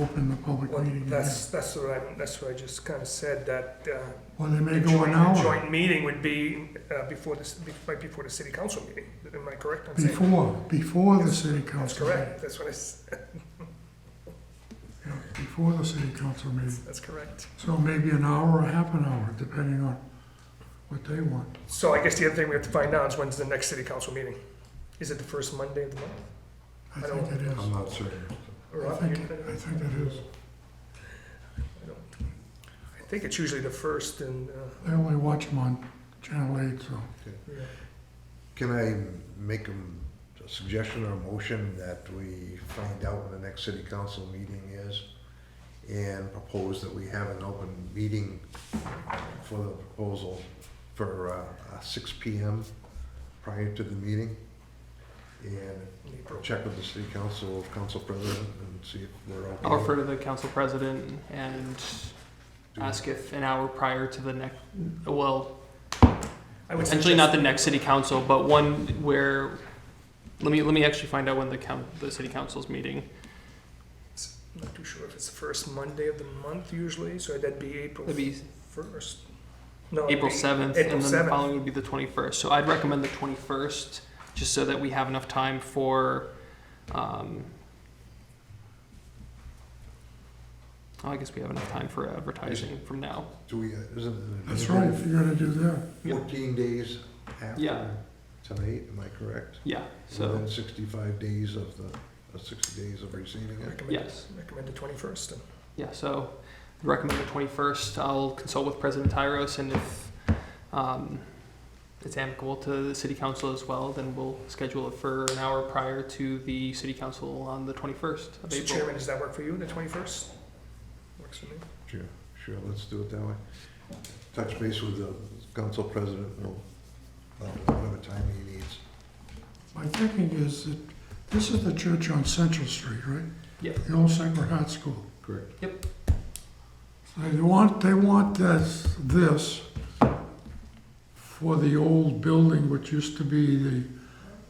open the public Well, meeting again. that's, that's what I, that's what I just kind of said, that, uh, Well, they may the go an joint- the hour Joint meeting would be, uh, before this, be- right before the city council meeting, am I correct on saying? before, before the city That's council meeting. correct, that's what I, s- Yeah, Before the city council meeting. that's correct. So maybe an hour or half an hour, depending on what they want. So I guess the other thing we have to find out is when's the next city council meeting? Is it the first Monday of the month? I I don't- think it is. I'm not certain. Or I up? think, I think it is. I think it's usually the first and, uh, They only watch them on Channel 8, so. yeah. Can I make a suggestion or a motion that we find out when the next city council meeting is and propose that we have an open meeting for the proposal for uh, uh, six P M prior to the meeting? And in April. check with the city council, council president, and see if we're okay. I'll refer to the council president and ask if an hour prior to the next, well, I would essentially not the suggest- next city council, but one where, let me, let me actually find out when the coun, the city council's meeting. I'm Not too sure if it's the first Monday of the month usually, so that'd be April It'd be first. No, it'd April be- seventh, April and then the 7th. following would be the twenty-first. So I'd recommend the twenty-first, just so that we have enough time for, um, oh, I guess we have enough time for advertising from now. Do we, isn't it? That's right, if you're gonna do that. Yeah. Fourteen days Yeah. after tonight, am I correct? Yeah, so, Within sixty-five days of the, uh, sixty days of receiving it? Recommend- yes. Recommend the twenty-first. Yeah, so I'd recommend the 21st. I'll consult with President Tyros, and if um, it's amicable to the city council as well, then we'll schedule it for an hour prior to the city council on the 21st of Mr. April. Chairman, does that work for you, the twenty-first? Works for me. Sure, sure, let's do it that way. Touch base with the council president, we'll, uh, whatever time he needs. My thinking is that this is the church on Central Street, right? Yeah. The old Sacred Heart School. Correct. They want, they want this, this for the old building, which used to be the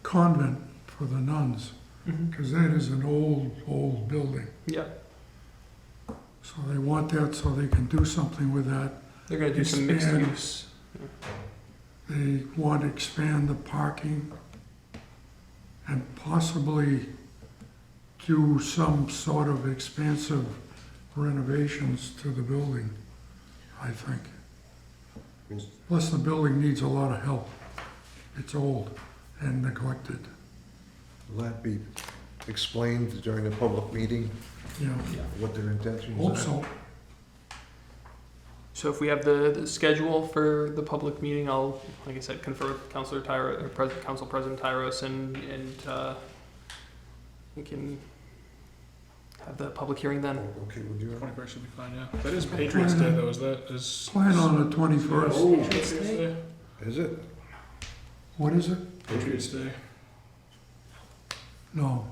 convent for the nuns, Mhm. because that is an old, old building. Yeah, So they want that so they can do something with that. they're going to do some mixed Expand. use. They want to expand the parking and possibly do some sort of expansive renovations to the building, I think. Yes. Plus, the building needs a lot of help. It's old and neglected, Will that be explained during the public meeting, you know. what their intentions are? Hope so. So if we have the, the schedule for the public meeting, I'll, like I said, confer with Councilor Tyros, or Pres- Council President Tyros, and, and uh, we can have the public hearing then. Okay, would you? Twenty-first should be fine, yeah. That is Patriots Day though, is that, is? Plan on the twenty-first. Is Patriots Day? Is it? What is it? Patriots Day. No,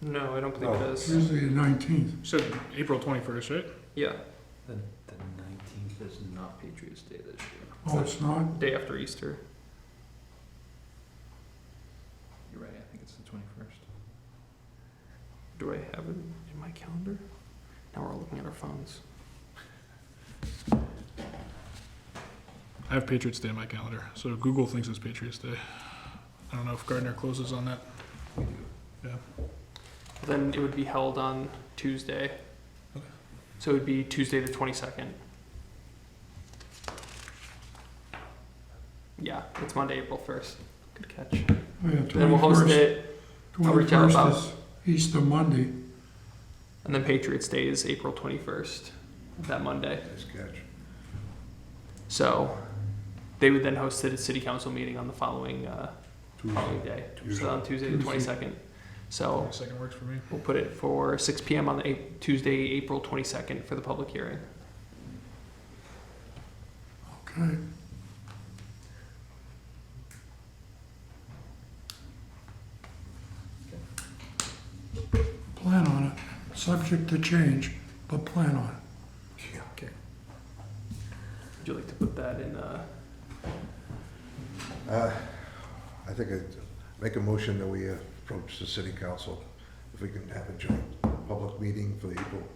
No, I don't believe it is. Tuesday the nineteenth. So April twenty-first, right? Yeah, The, the nineteenth is not Patriots Day this year. Oh, it's not? day after Easter. You're right, I think it's the twenty-first. Do I have it in my calendar? Now we're all looking at our phones. I have Patriots Day in my calendar, so Google thinks it's Patriots Day. I don't know if Gardner closes on that. Then it would be held on Tuesday. Okay. So it would be Tuesday the twenty-second. Yeah, it's Monday, April first. Good catch. Oh, yeah, Then we'll host 21st. it, I'll reach out Twenty-first about- is Easter Monday. and then Patriots Day is April twenty-first, that Monday. Nice catch. So they would then host it at city council meeting on the following, uh, following Tuesday. day. So on Tuesday the Tuesday. twenty-second. So Second works for me. We'll put it for six PM on the eight- Tuesday, April twenty-second for the public hearing. Okay. Plan on it, subject to change, but plan on it. Would you like to put that in, uh, Uh, I think I'd make a motion that we approach the city council, if we can have a joint public meeting for the April